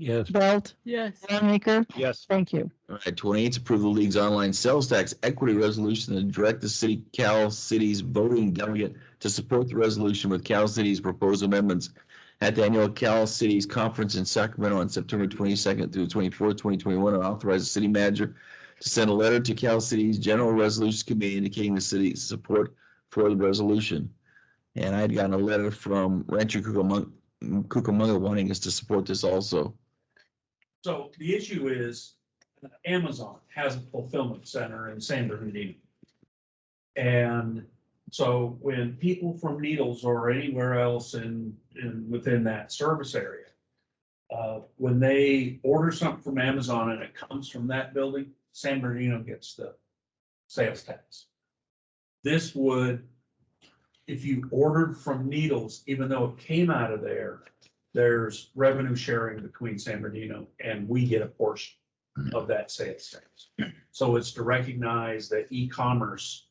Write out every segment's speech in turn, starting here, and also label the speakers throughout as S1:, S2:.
S1: Yes.
S2: Belt,
S3: Yes.
S2: Longacre.
S1: Yes.
S2: Thank you.
S4: All right, twenty-eight, to approve the league's online sales tax equity resolution and direct the city, Cal City's voting delegate to support the resolution with Cal City's proposed amendments at the annual Cal Cities Conference in Sacramento on September twenty-second through twenty-fourth, twenty twenty-one, and authorize the city manager to send a letter to Cal City's General Resolutions Committee indicating the city's support for the resolution. And I had gotten a letter from Rancho Cucamonga, Cucamonga wanting us to support this also.
S5: So the issue is uh, Amazon has a fulfillment center in San Bernardino. And so when people from Needles or anywhere else in, in, within that service area, uh, when they order something from Amazon and it comes from that building, San Bernardino gets the sales tax. This would, if you ordered from Needles, even though it came out of there, there's revenue sharing between San Bernardino and we get a portion of that sales tax. So it's to recognize that e-commerce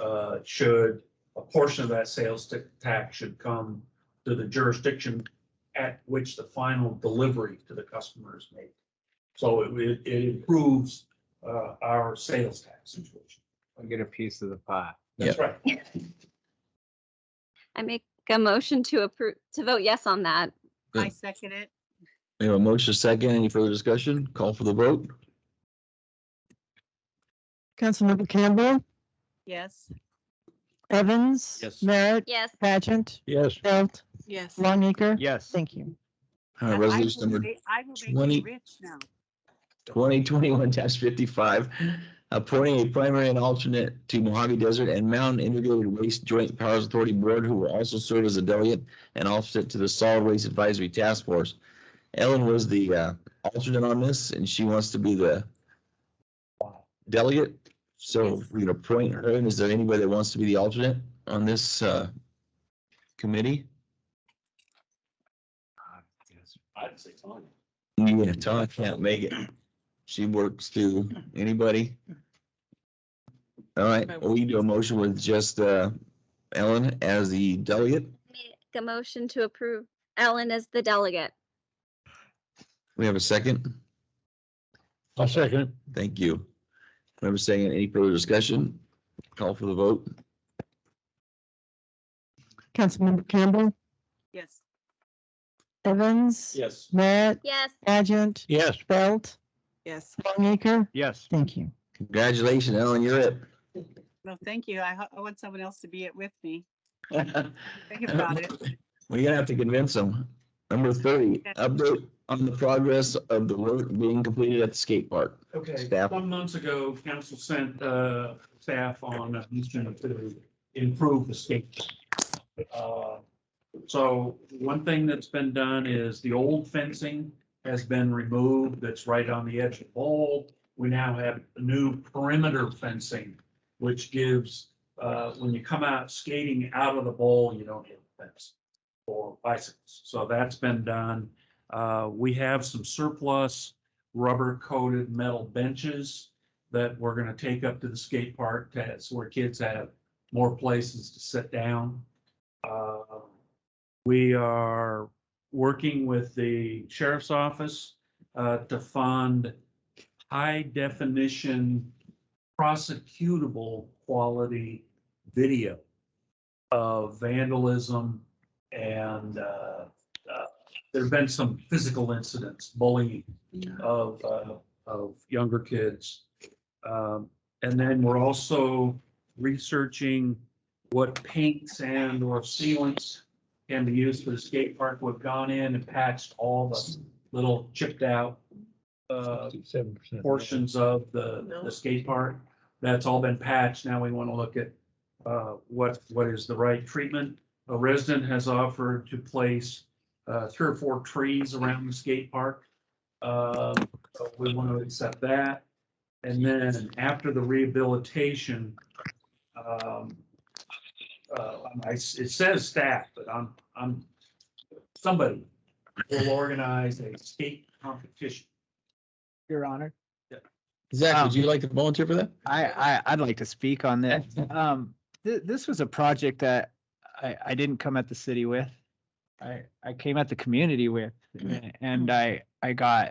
S5: uh, should, a portion of that sales ta- tax should come to the jurisdiction at which the final delivery to the customer is made. So it- it, it improves uh, our sales tax situation.
S6: I get a piece of the pie.
S5: That's right.
S7: I make a motion to approve, to vote yes on that.
S3: I
S4: Good.
S3: second it.
S4: We have a motion second. Any further discussion? Call for the vote.
S2: Councilmember Campbell,
S3: Yes.
S2: Evans.
S1: Yes.
S2: Merritt,
S7: Yes,
S2: Pageant,
S1: Yes.
S2: Belt,
S3: Yes.
S2: Longacre.
S6: Yes.
S2: Thank you.
S4: All
S3: I- I
S4: right,
S3: will
S4: Uh, resolution number
S3: ma- I will make
S4: 20.
S3: you rich now.
S4: twenty twenty-one fifty-five, appointing a primary and alternate to Mojave Desert and Mountain Integrated Waste Joint Powers Authority Board, who will also serve as a delegate and offset to the Solid Waste Advisory Task Force. Ellen was the uh, alternate on this, and she wants to be the delegate. So we're gonna appoint her. And is there anybody that wants to be the alternate on this uh, committee?
S5: I'd say fine.
S4: Yeah, Todd can't make it. She works too. Anybody? All right, we do a motion with just uh Ellen as the delegate.
S7: make a motion to approve Ellen as the delegate.
S4: We have a second.
S1: I'll second.
S4: Thank you. We have a second. Any further discussion? Call for the vote.
S2: Councilmember Campbell,
S3: Yes.
S2: Evans.
S5: Yes.
S2: Merritt,
S7: Yes,
S2: Pageant,
S1: Yes.
S2: Belt,
S3: Yes.
S2: Longacre.
S6: Yes.
S2: Thank you.
S4: Congratulations, Ellen, you're it.
S3: No, thank you. I, ho- I want someone else to be it with me.
S4: Uh,
S3: Think about it.
S4: We're gonna have to convince them. Number thirty, update on the progress of the work being completed at the skate park.
S5: Okay,
S4: Staff.
S5: some months ago, council sent uh staff on a mission to improve the skate. Uh, So one thing that's been done is the old fencing has been removed that's right on the edge of the bowl. We now have new perimeter fencing, which gives, uh, when you come out skating out of the bowl, you don't hit the fence or bicycles. So that's been done. Uh, we have some surplus rubber coated metal benches that we're gonna take up to the skate park to, so where kids have more places to sit down. Uh, We are working with the sheriff's office uh, to fund high definition prosecutable quality video of vandalism and uh, uh, there've been some physical incidents, bullying of, uh, of younger kids. Um, and then we're also researching what paints and or sealants can be used for the skate park. We've gone in and patched all the little chipped out, uh,
S1: Seven percent.
S5: portions of the, the skate park. That's all been patched. Now we want to look at uh, what, what is the right treatment. A resident has offered to place uh, three or four trees around the skate park. Uh, so We want to accept that. And then after the rehabilitation, um, uh, I- it says staff, but I'm, I'm, somebody will organize a skate competition.
S6: Your Honor.
S4: Zach, would you like to volunteer for that?
S6: I, I, I'd like to speak on this. Um, th- this was a project that I, I didn't come at the city with. I, I came at the community with. and I I got